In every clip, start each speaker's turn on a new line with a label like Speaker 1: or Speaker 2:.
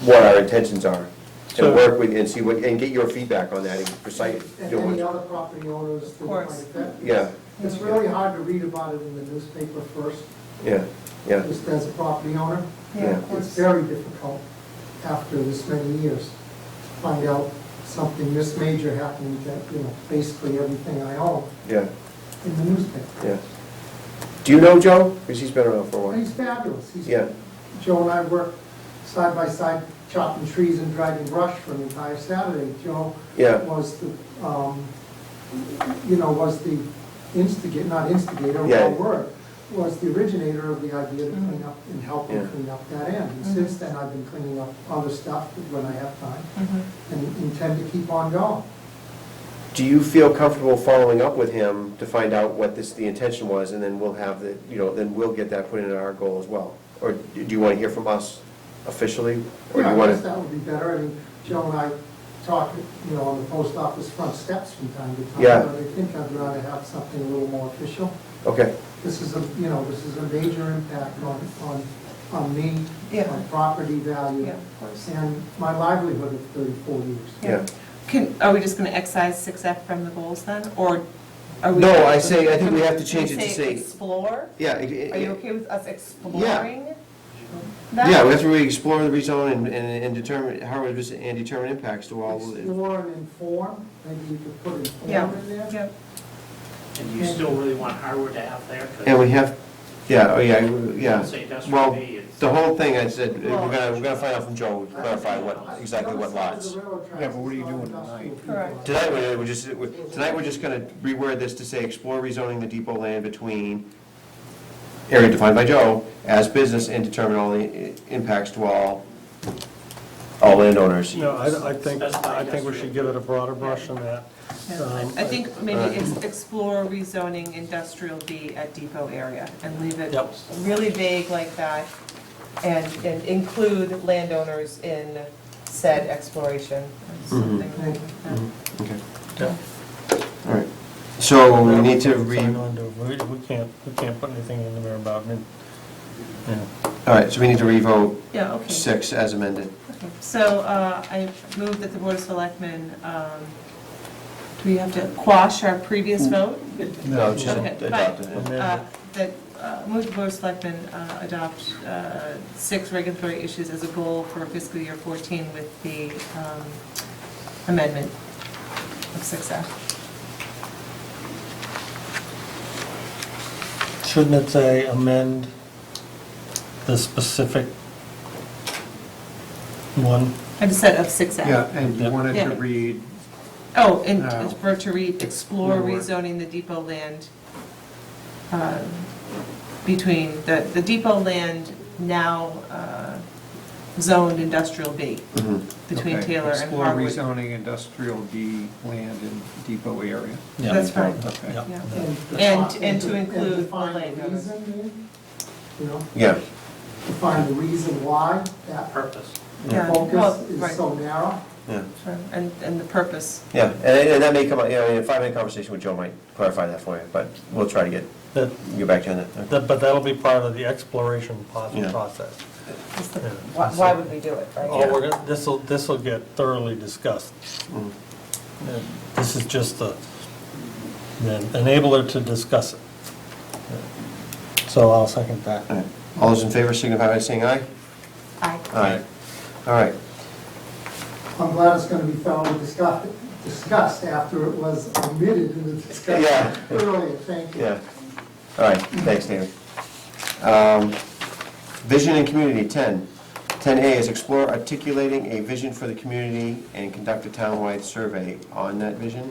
Speaker 1: what our intentions are, and
Speaker 2: So-
Speaker 1: work with, and see what, and get your feedback on that, and precise,
Speaker 3: And
Speaker 1: you know,
Speaker 3: any
Speaker 1: what-
Speaker 3: other property owners
Speaker 4: Of
Speaker 3: that might
Speaker 4: course.
Speaker 3: affect.
Speaker 1: yeah,
Speaker 3: It's really hard to read about it in the newspaper first,
Speaker 1: yeah, yeah,
Speaker 3: just as a property owner.
Speaker 4: Yeah,
Speaker 1: Yeah.
Speaker 4: of
Speaker 3: It's
Speaker 4: course.
Speaker 3: very difficult after this many years to find out something this major happened that, you know, basically everything I own
Speaker 1: yeah,
Speaker 3: in the newspaper.
Speaker 1: yeah. Do you know Joe? Because he's been around for a
Speaker 3: But
Speaker 1: while.
Speaker 3: he's fabulous. He's-
Speaker 1: Yeah,
Speaker 3: Joe and I worked side by side chopping trees and driving brush for an entire Saturday. Joe
Speaker 1: yeah,
Speaker 3: was the, um, you know, was the instigator, not instigator,
Speaker 1: Yeah.
Speaker 3: wrong word, was the originator of the idea to clean up and help
Speaker 1: Yeah.
Speaker 3: him clean up that end. And
Speaker 4: Mhm.
Speaker 3: since then, I've been cleaning up other stuff when I have time
Speaker 4: Mhm.
Speaker 3: and intend to keep on going.
Speaker 1: do you feel comfortable following up with him to find out what this, the intention was, and then we'll have the, you know, then we'll get that put into our goal as well? Or do you want to hear from us officially? Or do
Speaker 3: Yeah,
Speaker 1: you
Speaker 3: I
Speaker 1: want
Speaker 3: guess
Speaker 4: uh,
Speaker 1: to?
Speaker 3: that would be better. I mean, Joe and I talk, you know, on the post office front steps from time to time.
Speaker 1: Yeah.
Speaker 3: But I think I'd rather have something a little more official.
Speaker 1: Okay,
Speaker 3: This is a, you know, this is a major impact on, on, on me,
Speaker 4: Yeah.
Speaker 3: on property value,
Speaker 4: Yeah, of course.
Speaker 3: and my livelihood of thirty-four years.
Speaker 1: yeah.
Speaker 4: Can, are we just going to excise six F from the goals then, or are we?
Speaker 1: No, I say- I think we have to change
Speaker 4: Can we
Speaker 1: it to say-
Speaker 4: Explore?
Speaker 1: Yeah.
Speaker 4: Are you okay with us exploring? that?
Speaker 1: Yeah, we have to really explore the rezone and, and and determine, how it was, and determine impacts to all. the-
Speaker 3: Explore and inform, maybe you could put
Speaker 4: Yeah,
Speaker 3: inform in there.
Speaker 4: yeah.
Speaker 5: And do you still really want Harwood to have there? 'Cause
Speaker 1: And we have, yeah, oh, yeah, yeah.
Speaker 5: Say that's
Speaker 1: Well,
Speaker 5: for me, it's.
Speaker 1: The whole thing, I said, we're gonna, we're gonna find out from Joe, clarify what, exactly what lots.
Speaker 3: Yeah, but what are you doing tonight?
Speaker 4: Correct.
Speaker 1: Tonight, we're, we're just, we're- tonight, we're just gonna reword this to say, explore rezoning the depot land between area defined by Joe as business and determine all the i- impacts to all, all landowners.
Speaker 2: No, I, I think, I think we should give it a broader brush than that.
Speaker 4: Yeah.
Speaker 2: Um,
Speaker 4: I I think maybe ex- explore rezoning industrial B at depot area and leave it
Speaker 2: Yep.
Speaker 4: really vague like that and, and include landowners in said exploration or
Speaker 2: Mm-hmm.
Speaker 4: something like that.
Speaker 1: Okay,
Speaker 2: Yeah.
Speaker 1: all right. So we need to re,
Speaker 2: Sign
Speaker 1: all
Speaker 2: on to it. We we can't, we can't put anything in there about it. Yeah.
Speaker 1: right, so we need to revote
Speaker 4: Yeah, okay.
Speaker 1: six as amended.
Speaker 4: Okay. So uh, I move that the Board of Selectmen, um, do we have to quash our previous vote?
Speaker 1: No, just
Speaker 4: Okay, fine.
Speaker 1: adopted it.
Speaker 4: Uh, That, uh, move the Board of Selectmen uh, adopt uh, six regulatory issues as a goal for fiscal year 14 with the um, amendment of 6F.
Speaker 2: Shouldn't it say amend the specific one?
Speaker 4: I just said of 6F.
Speaker 6: Yeah, and you
Speaker 2: Yep.
Speaker 6: wanted
Speaker 4: Yeah.
Speaker 6: to read, uh,
Speaker 4: Oh, and
Speaker 6: No.
Speaker 4: for to read, explore
Speaker 6: Explore.
Speaker 4: rezoning the depot land uh, between, the, the depot land now uh, zoned industrial B,
Speaker 1: Mhm.
Speaker 4: between
Speaker 6: okay,
Speaker 4: Taylor and
Speaker 6: explore
Speaker 4: Harwood.
Speaker 6: rezoning industrial B land in depot area.
Speaker 2: Yeah.
Speaker 4: That's right.
Speaker 6: Okay.
Speaker 2: Yeah.
Speaker 4: Yeah.
Speaker 3: define-
Speaker 4: And- and to include the
Speaker 3: define
Speaker 4: landowners.
Speaker 3: reason, maybe? You know,
Speaker 1: Yeah,
Speaker 3: define the reason why that
Speaker 5: Purpose.
Speaker 4: Yeah, well,
Speaker 3: focus
Speaker 4: right.
Speaker 3: is so narrow.
Speaker 1: yeah,
Speaker 4: Sure, And, and the purpose.
Speaker 1: yeah, and, and that may come, up. yeah, I mean, a five-minute conversation with Joe might clarify that for you, but we'll try to get,
Speaker 2: That,
Speaker 1: get back to you on that.
Speaker 2: that- but that'll be part of the exploration po-
Speaker 1: Yeah.
Speaker 2: process.
Speaker 4: is the-
Speaker 2: Yeah.
Speaker 4: Why why would we do it, right?
Speaker 2: Oh, we're gonna, this'll, this'll get thoroughly discussed.
Speaker 1: Mhm.
Speaker 2: And This is just the, the enabler to discuss it. So I'll second
Speaker 1: All
Speaker 2: that.
Speaker 1: right. All those in favor signify by saying aye?
Speaker 4: Aye.
Speaker 1: Aye. All right,
Speaker 3: I'm glad it's gonna be thoroughly discussed, discussed after it was omitted in the
Speaker 1: Yeah.
Speaker 3: discussion earlier, thank you.
Speaker 1: yeah, all right, thanks, David. Um, Vision and community, 10. 10A is explore articulating a vision for the community and conduct a townwide survey on that vision.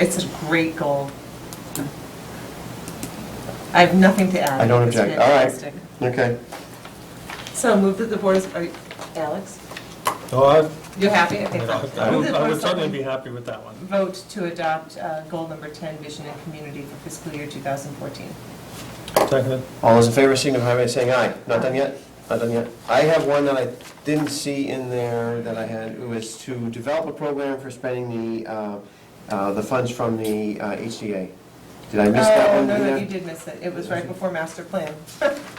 Speaker 4: It's a great goal. I have nothing to add.
Speaker 1: I don't
Speaker 4: It's
Speaker 1: object, all right,
Speaker 4: fantastic.
Speaker 1: okay.
Speaker 4: So move that the board is, are you- Alex,
Speaker 2: So Oh, I,
Speaker 4: you're happy? Okay, fine.
Speaker 2: I
Speaker 4: Move
Speaker 2: would
Speaker 4: that the
Speaker 2: I
Speaker 4: Board
Speaker 2: would
Speaker 4: of
Speaker 2: certainly be
Speaker 4: Selectmen
Speaker 2: happy with that one.
Speaker 4: Vote to adopt uh, goal number 10, vision and community for fiscal year 2014.
Speaker 2: Second.
Speaker 1: All those in favor signify by saying aye. Not done yet? Not done yet. I have one that I didn't see in there that I had, it was to develop a program for spending the, uh, uh, the funds from the uh, HDA. Did I miss that
Speaker 4: Oh,
Speaker 1: one?
Speaker 4: no,
Speaker 1: in
Speaker 4: no,
Speaker 1: there?
Speaker 4: you did miss it. It was right before master plan.